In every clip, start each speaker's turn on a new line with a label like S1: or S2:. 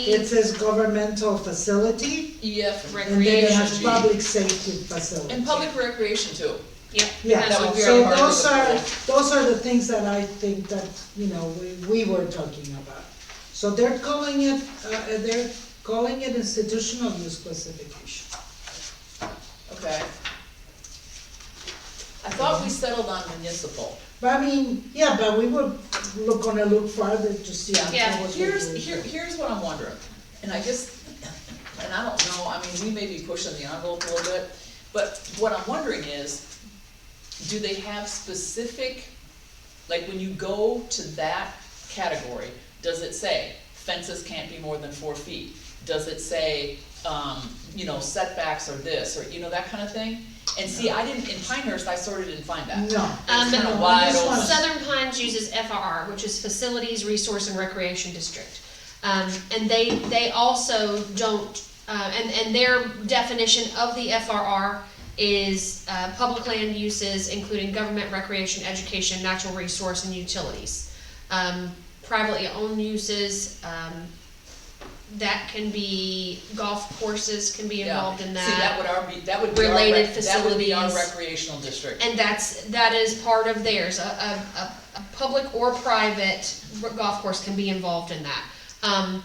S1: It says governmental facility,
S2: Yep,
S1: and then it has
S2: recreation
S1: public safety facility.
S2: E and public recreation too.
S3: Yep.
S1: Yeah,
S2: That would be
S1: so
S2: our
S1: those are,
S2: hardest
S1: those are the things that I think that, you know, we, we were talking about. So they're calling it, uh, they're calling it institutional use classification.
S2: Okay. I thought we settled on municipal.
S1: But I mean, yeah, but we were look, gonna look farther to see.
S2: Yeah.
S3: Yeah,
S1: what we're
S2: Here's,
S1: doing.
S2: here, here's what I'm wondering, and I just, and I don't know, I mean, we may be pushing the envelope a little bit, but what I'm wondering is, do they have specific, like, when you go to that category, does it say fences can't be more than four feet? Does it say, um, you know, setbacks or this, or, you know, that kind of thing? And see, I didn't, in Pinehurst, I sort of didn't find that.
S1: No.
S3: Um,
S2: It's kinda
S1: no,
S2: wide
S1: this
S2: open.
S1: one-
S3: Southern Pines uses FRR, which is Facilities, Resource and Recreation District. Um, and they, they also don't, uh, and, and their definition of the FRR is, uh, public land uses, including government, recreation, education, natural resource and utilities. Um, privately owned uses, um, that can be, golf courses can be
S2: Yeah.
S3: involved in
S2: See, that would our, be- that would be our, rec-
S3: Related
S2: that would be our
S3: facilities.
S2: recreational district.
S3: And that's, that is part of theirs, a, a, a, a public or private golf course can be involved in that. Um,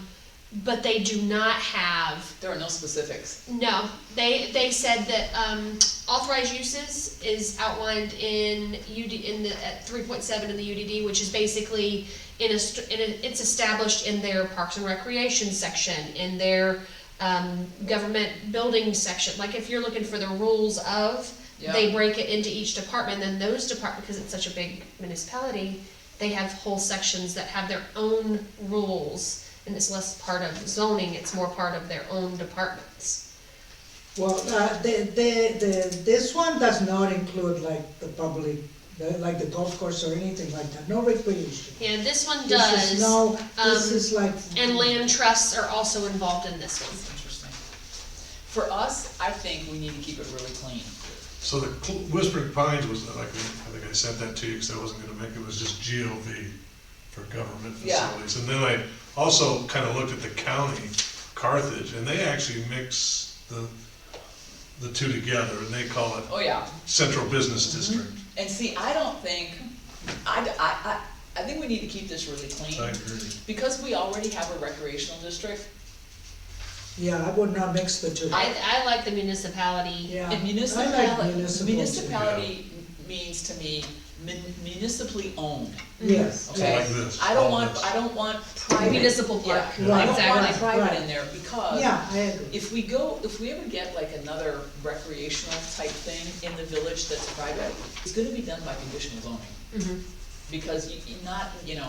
S3: but they do not have,
S2: There are no specifics.
S3: no, they, they said that, um, authorized uses is outlined in UD, in the, at three point seven in the UDD, which is basically in a, st- in a, it's established in their parks and recreation section, in their, um, government building section, like if you're looking for the rules of,
S2: Yeah.
S3: they break it into each department, then those department, because it's such a big municipality, they have whole sections that have their own rules, and it's less part of zoning, it's more part of their own departments.
S1: Well, uh, the, the, the, this one does not include like the public, the- like the golf course or anything like that, no recreation.
S3: Yeah, this one
S1: This
S3: does,
S1: is no, this
S3: um,
S1: is like.
S3: and land trusts are also involved in this one.
S2: Interesting. For us, I think we need to keep it really clean.
S4: So the Cl- Whispering Pines was, like, I think I sent that to you, because I wasn't gonna make, it was just GLV for government
S2: Yeah.
S4: facilities. And then I also kinda looked at the county, Carthage, and they actually mix the, the two together, and they call it
S2: Oh, yeah.
S4: Central Business District.
S2: And see, I don't think, I, I, I, I think we need to keep this really
S4: I
S2: clean.
S4: agree.
S2: Because we already have a recreational district,
S1: Yeah, I would not mix the two.
S3: I, I like the municipality,
S1: Yeah,
S2: and
S1: I like
S2: municipality,
S1: municipal.
S2: municipality means to me mun- municipally owned,
S1: Yes,
S2: okay?
S1: yes.
S4: Like this,
S2: I don't
S4: all
S2: want,
S4: this.
S2: I don't want private.
S3: Municipal park,
S2: Yeah, I don't want
S1: exactly.
S2: private
S1: Right.
S2: in there because
S1: Yeah, I agree.
S2: If we go, if we ever get like another recreational type thing in the village that's private, it's gonna be done by conditional zoning.
S3: Mhm.
S2: Because you, you not, you know,